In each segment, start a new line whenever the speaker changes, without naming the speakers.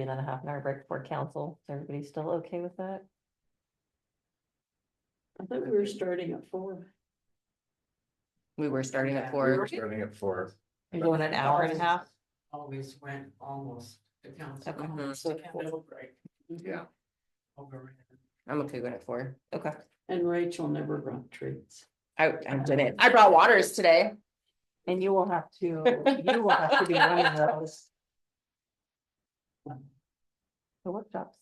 and then a half an hour break before council. Is everybody still okay with that?
I thought we were starting at four.
We were starting
Yeah,
at
we
four.
Starting at four.
You're going an hour and a half?
Always went almost to council.
Okay.
Mhm.
So four.
Mm-hmm.
Yeah.
I'm okay with it at four.
Okay,
And Rachel never brought treats.
I, I didn't. I brought waters today.
Um, and you will have to, you will have to be running those. The workshops,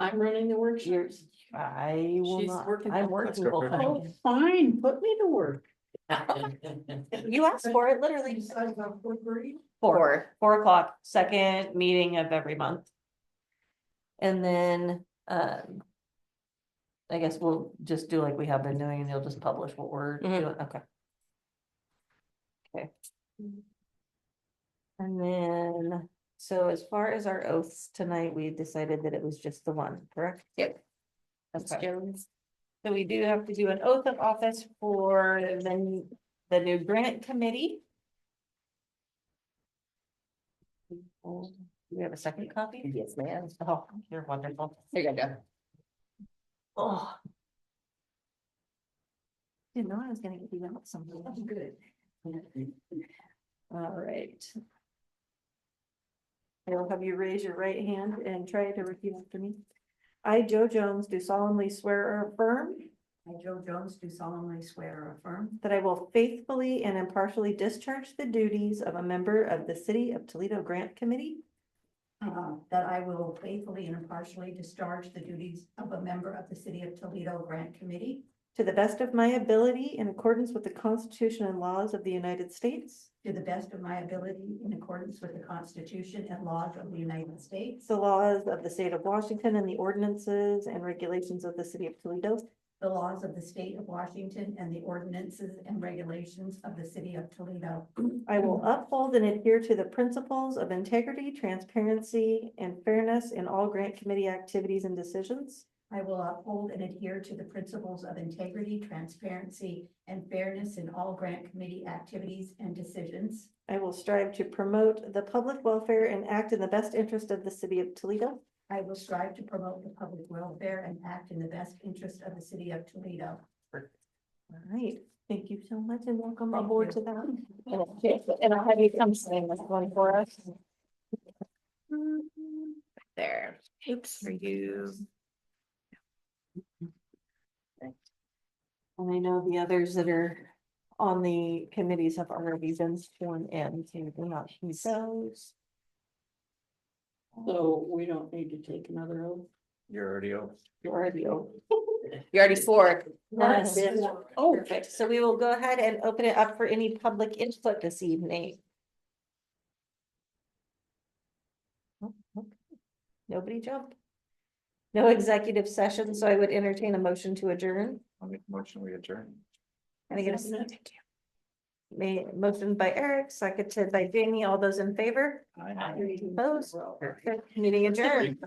I'm running the workshops.
I will
She's
not,
working
I'm
on-
Let's
working
go
full
for it.
time.
Oh, fine, put me to work.
You asked for it, literally. Four,
Four.
four o'clock, second meeting of every month. And then, um. I guess we'll just do like we have been doing and you'll just publish what we're
Mhm.
doing, okay. Okay. And then, so as far as our oaths tonight, we decided that it was just the one, correct?
Yep.
That's So we do have to do an oath of office for the, n- the new grant committee. Do we have a second copy?
Yes, ma'am.
Oh, you're wonderful.
Here you go.
Oh. Didn't know I was gonna get you out something. Good. All right. I'll have you raise your right hand and try to repeat after me. I, Joe Jones, do solemnly swear or affirm
I, Joe Jones, do solemnly swear or affirm
that I will faithfully and impartially discharge the duties of a member of the City of Toledo Grant Committee
Uh, that I will faithfully and impartially discharge the duties of a member of the City of Toledo Grant Committee
to the best of my ability in accordance with the Constitution and laws of the United States,
to the best of my ability in accordance with the Constitution and laws of the United States,
the laws of the state of Washington and the ordinances and regulations of the City of Toledo,
the laws of the State of Washington, and the ordinances and regulations of the City of Toledo.
I will uphold and adhere to the principles of integrity, transparency, and fairness in all grant committee activities and decisions.
I will uphold and adhere to the principles of integrity, transparency, and fairness in all grant committee activities and decisions.
I will strive to promote the public welfare and act in the best interest of the City of Toledo.
I will strive to promote the public welfare and act in the best interest of the City of Toledo.
All right, thank you so much and welcome
Thank
aboard
you.
to that.
And I'll have you come sign this one for us.
Mm-hmm.
There. Oops, for you.
And I know the others that are on the committees have already been sworn in, so you do not need those.
So we don't need to take another oath.
You're already over.
You already owe.
You already swore.
Yes.
Oh.
Perfect. So we will go ahead and open it up for any public input this evening. Oh, okay. Nobody jump. No executive session, so I would entertain a motion to adjourn.
I'll make a motion, we adjourn.
Can I get a second? May, motion by Eric, seconded by Jamie. All those in favor?
Aye.
Opposed? Perfect. Meeting adjourned.